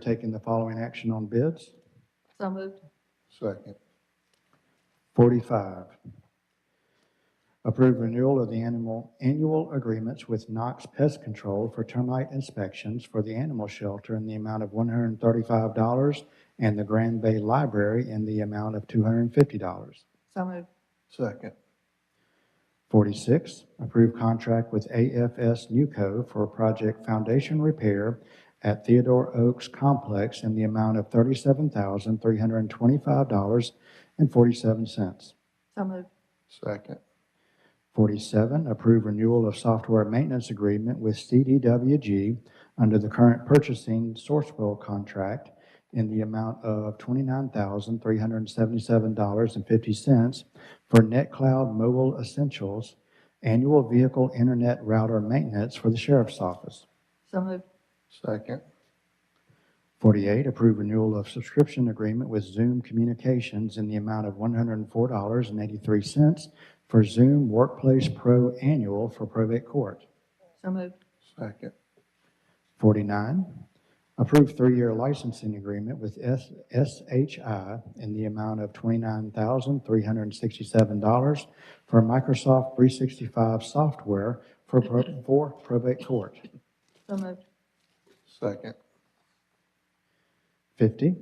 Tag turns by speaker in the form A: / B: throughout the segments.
A: taking the following action on bids.
B: So moved.
C: Second.
A: 45, approve renewal of the animal, annual agreements with Knox Pest Control for termite inspections for the animal shelter in the amount of $135 and the Grand Bay Library in the amount of $250.
B: So moved.
C: Second.
A: 46, approve contract with AFS Newco for project foundation repair at Theodore Oaks Complex in the amount of $37,325.47.
B: So moved.
C: Second.
A: 47, approve renewal of software maintenance agreement with CDWG under the current purchasing Sourcewell contract in the amount of $29,377.50 for NetCloud Mobile Essentials Annual Vehicle Internet Router Maintenance for the Sheriff's Office.
B: So moved.
C: Second.
A: 48, approve renewal of subscription agreement with Zoom Communications in the amount of $104.83 for Zoom Workplace Pro Annual for probate court.
B: So moved.
C: Second.
A: 49, approve three-year licensing agreement with S- SHI in the amount of $29,367 for Microsoft 365 software for pro- for probate court.
B: So moved.
C: Second.
A: 50,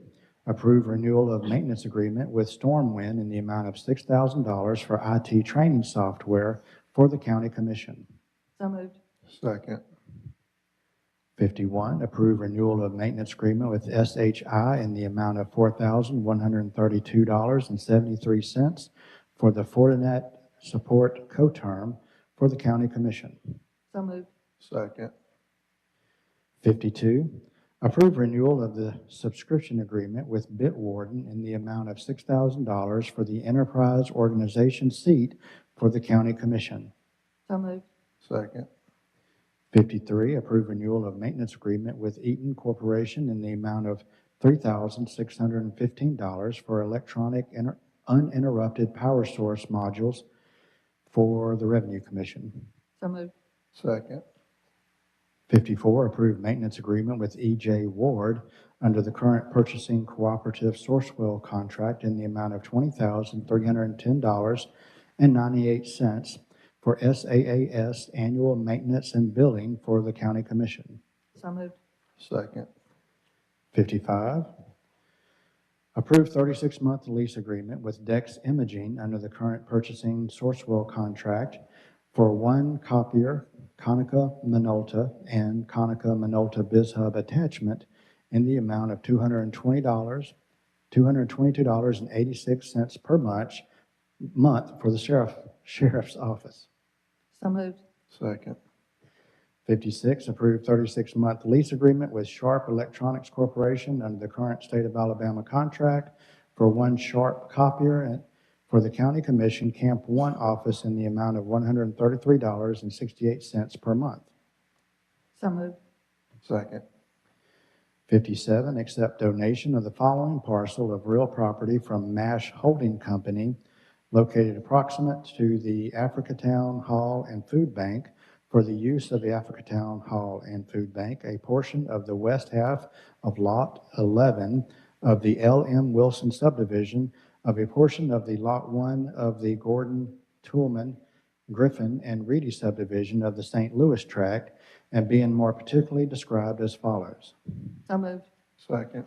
A: approve renewal of maintenance agreement with Stormwind in the amount of $6,000 for IT training software for the county commission.
B: So moved.
C: Second.
A: 51, approve renewal of maintenance agreement with SHI in the amount of $4,132.73 for the Fortinet Support Co-Term for the county commission.
B: So moved.
C: Second.
A: 52, approve renewal of the subscription agreement with Bitwarden in the amount of $6,000 for the enterprise organization seat for the county commission.
B: So moved.
C: Second.
A: 53, approve renewal of maintenance agreement with Eaton Corporation in the amount of $3,615 for electronic inter- uninterrupted power source modules for the Revenue Commission.
B: So moved.
C: Second.
A: 54, approve maintenance agreement with EJ Ward under the current purchasing cooperative Sourcewell contract in the amount of $20,310.98 for SAAS annual maintenance and billing for the county commission.
B: So moved.
C: Second.
A: 55, approve 36-month lease agreement with Dex Imaging under the current purchasing Sourcewell contract for one copier, Konica Minolta and Konica Minolta BizHub attachment in the amount of $220, $222.86 per month, month for the sheriff, sheriff's office.
B: So moved.
C: Second.
A: 56, approved 36-month lease agreement with Sharp Electronics Corporation under the current state of Alabama contract for one Sharp copier and- for the County Commission Camp One office in the amount of $133.68 per month.
B: So moved.
C: Second.
A: 57, accept donation of the following parcel of real property from MASH Holding Company located approximate to the Africatown Hall and Food Bank for the use of the Africatown Hall and Food Bank, a portion of the west half of Lot 11 of the L.M. Wilson subdivision of a portion of the Lot 1 of the Gordon, Toolman, Griffin, and Reedy subdivision of the St. Louis tract, and being more particularly described as follows.
B: So moved.
C: Second.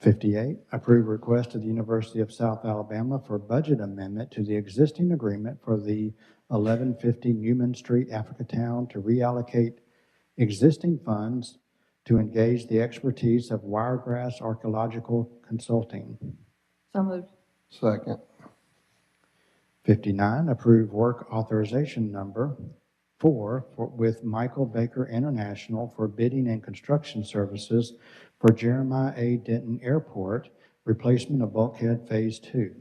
A: 58, approve request of the University of South Alabama for budget amendment to the existing agreement for the 1150 Newman Street, Africatown, to reallocate existing funds to engage the expertise of Wiregrass Archaeological Consulting.
B: So moved.
C: Second.
A: 59, approve work authorization number four for- with Michael Baker International for bidding and construction services for Jeremiah A. Denton Airport, replacement of bulkhead Phase 2.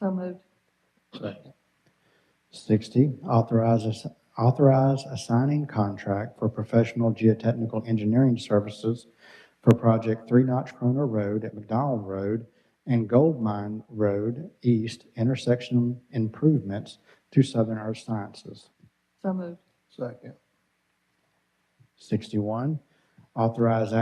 B: So moved.
C: Second.
A: 60, authorize, ass- authorize assigning contract for professional geotechnical engineering services for Project Three Notch Corner Road at McDowell Road and Gold Mine Road East intersection improvements to Southern Earth Sciences.
B: So moved.
C: Second.
A: 61, Authorize